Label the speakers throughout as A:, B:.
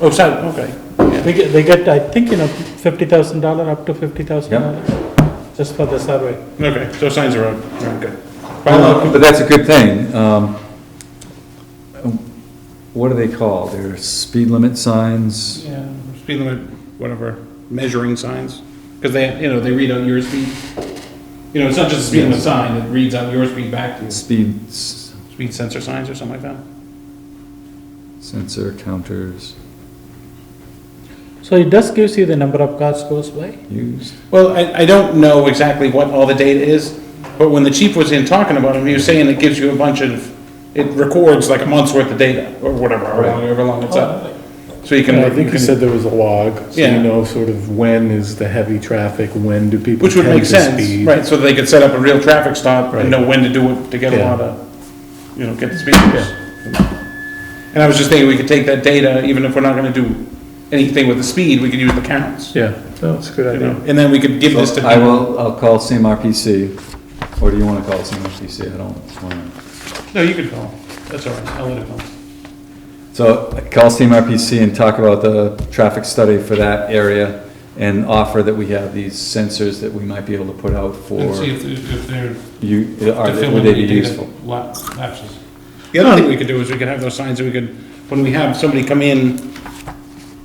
A: Oh, seven, okay.
B: They get, they get, I think, you know, fifty thousand dollar, up to fifty thousand dollars, just for the survey.
A: Okay, so signs are out, okay.
C: Well, But that's a good thing. Um, What are they called? They're speed limit signs?
B: Yeah.
A: Speed limit, whatever, measuring signs, because they, you know, they read out your speed. You know, it's not just a speed limit sign, it reads out your speed back to you.
C: Speed s-
A: Speed sensor signs or something like that?
C: sensor counters
B: So it does gives you the number of cars goes by?
C: used?
A: Well, I, I don't know exactly what all the data is, but when the chief was in talking about it, he was saying it gives you a bunch of, it records like a month's worth of data, or whatever, or however long it's up. So you can.
D: Oh, Yeah, I think
A: you
D: you
A: can-
D: said there was a log, so
A: Yeah.
D: you know sort of when is the heavy traffic, when do people
A: Which would
D: tend
A: make
D: to
A: sense,
D: speed.
A: right, so they could set up a real traffic stop and
D: Right.
A: know when to do it to get a
D: Yeah.
A: lot of, you know, get the speeders. And I was just thinking, we could take that data, even if we're not gonna do anything with the speed, we could use the counts,
D: Yeah, no, it's a good
A: you know,
D: idea.
A: and then we could give this to
C: I
A: people.
C: will, I'll call CMRPC, or do you want to call CMRPC? I don't want to.
A: No, you could call, that's all right, I'll let it call.
C: So call CMRPC and talk about the traffic study for that area and offer that we have these sensors that we might be able to put out
E: And see
C: for
E: if, if they're,
C: you, are,
E: to
C: they-
E: fill
C: would
E: in
C: they be
E: any
C: useful?
E: data la- lapses.
A: The other thing we could do is we could have those signs, that we could, when we have somebody come in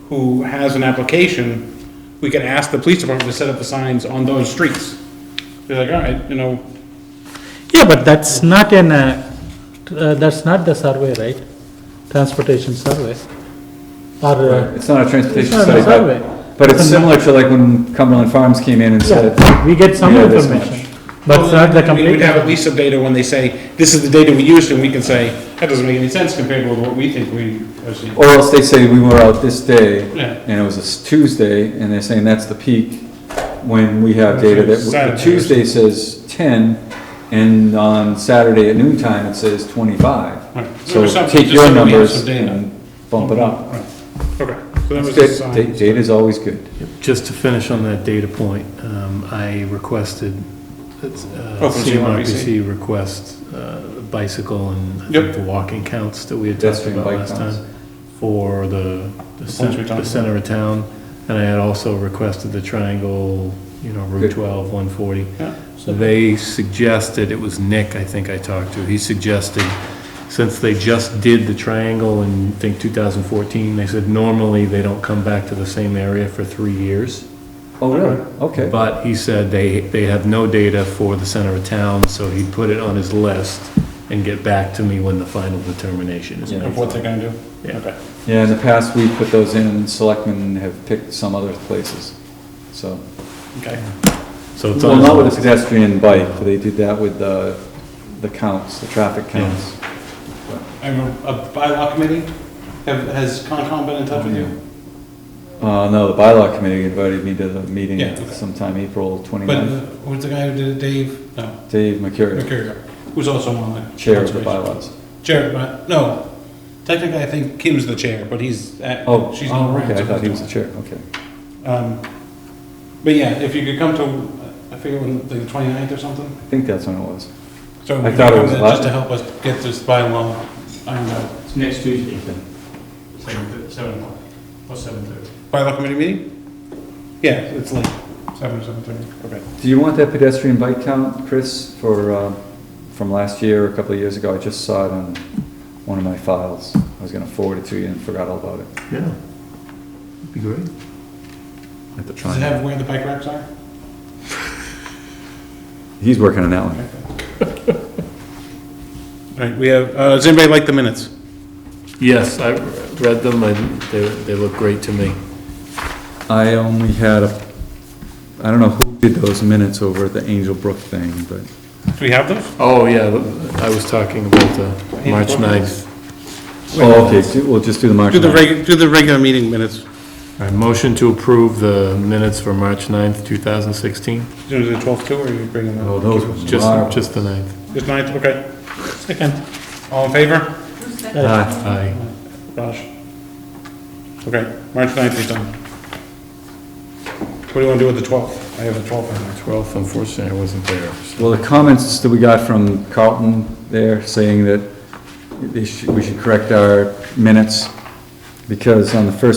A: who has an application, we could ask the police department to set up the signs on those streets. They're like, all right, you know,
B: Yeah, but that's not in a, uh, that's not the survey, right? Transportation survey. Or, uh,
C: It's not a transportation
B: It's not
C: study,
B: a survey.
C: but, but it's similar to like when Cumberland Farms came in and said,
B: yeah, we get some
C: We know this
B: information, but it's not the
A: we
B: complete.
A: would have at least some data when they say, this is the data we used, and we can say, that doesn't make any sense compared with what we think we are seeing.
C: or else they say, we were out this day,
A: Yeah.
C: and it was a s- Tuesday, and they're saying that's the peak, when we have data that,
A: Saturday.
C: w- Tuesday says ten, and on Saturday at noon time, it says
A: Right.
C: twenty-five.
A: Or
C: So
A: something,
C: take
A: just
C: your
A: so that we have some
C: numbers
A: data.
C: and bump it up.
A: Okay, so that was the
C: It's good. Da-
A: sign.
C: Data's always good.
D: Just to finish on that data point, um, I requested, uh,
A: Oh, from CMRPC.
D: CMRPC request uh, bicycle and I think
A: Yep.
D: the walking counts that we had talked
C: Pedestrian
D: about
C: bike
D: last
C: counts.
D: time for the, the
A: ones we
D: center,
A: talked
D: the center of town. And I had also requested the triangle, you know, Route
C: Good.
D: 12, 140.
A: Yeah.
D: So They suggested, it was Nick, I think I talked to, he suggested, since they just did the triangle in, I think, 2014, they said normally they don't come back to the same area for three years.
C: Oh, really? Okay.
D: But he said they, they have no data for the center of town, so he'd put it on his list and get back to me when the final determination is
C: Yeah.
A: Of
D: made.
A: what they're gonna do?
D: Yeah.
A: Okay.
C: Yeah, in the past, we put those in, and selectmen have picked some other places, so.
A: Okay.
D: So it's
C: Well,
D: on his
C: not with a
D: list.
C: pedestrian bike, but they did that with the, the counts, the traffic counts.
A: I remember, a bylaw committee, have, has Concom been in touch with you?
C: Uh, no, the bylaw committee invited me to the meeting
A: Yeah, okay.
C: sometime April
A: But, uh,
C: 29th.
A: who's the guy who did it, Dave? No,
C: Dave McCurry,
A: Mercurio, who's also on the.
C: chair of
A: conservation.
C: the bylaws.
A: Chair, but, no, technically, I think Kim's the chair, but he's, at-
C: Oh,
A: she's not
C: oh,
A: around.
C: okay, I
A: so
C: thought he was
A: he's
C: the chair, okay.
A: not. Um, But yeah, if you could come to, I figure when, like the 29th or something,
C: I think that's when it was.
A: so
C: I
A: if you
C: thought it
A: come
C: was
A: in
C: last-
A: just to help us get this bylaw ironed out.
E: It's next Tuesday, seven, seven o'clock, or seven thirty.
A: Bylaw committee meeting? Yeah, it's late, seven, seven thirty. Okay.
C: Do you want that pedestrian bike count, Chris, for, uh, from last year, a couple of years ago? I just saw it on one of my files. I was gonna forward it to you and forgot all about it.
D: Yeah. That'd Be great.
C: I have to try
A: Does it
C: and-
A: have where the bike racks are?
C: He's working on that one.
A: All right, we have, uh, does anybody like the minutes?
D: Yes, I read them, I, they, they look great to me.
C: I only had a, I don't know who did those minutes over at the Angel Brook thing, but
A: Do we have those?
D: Oh, yeah, I was talking about the March 9th.
C: Oh, okay, do- we'll just do the March
A: Do the
C: 9th.
A: reg, do the regular meeting minutes,
D: All right, motion to approve the minutes for March 9th, 2016?
A: do the twelfth too, or are you bringing them?
C: Oh, those were
D: Just,
C: marvelous.
D: just the 9th.
A: Just ninth, okay. Second. All in favor?
C: Aye.
D: Aye.
A: Raj? Okay, March ninth is done. What do you want to do with the twelfth? I have the twelfth on there.
D: 12th, unfortunately, I wasn't there.
C: Well, the comments that we got from Carlton there saying that they should, we should correct our minutes because on the first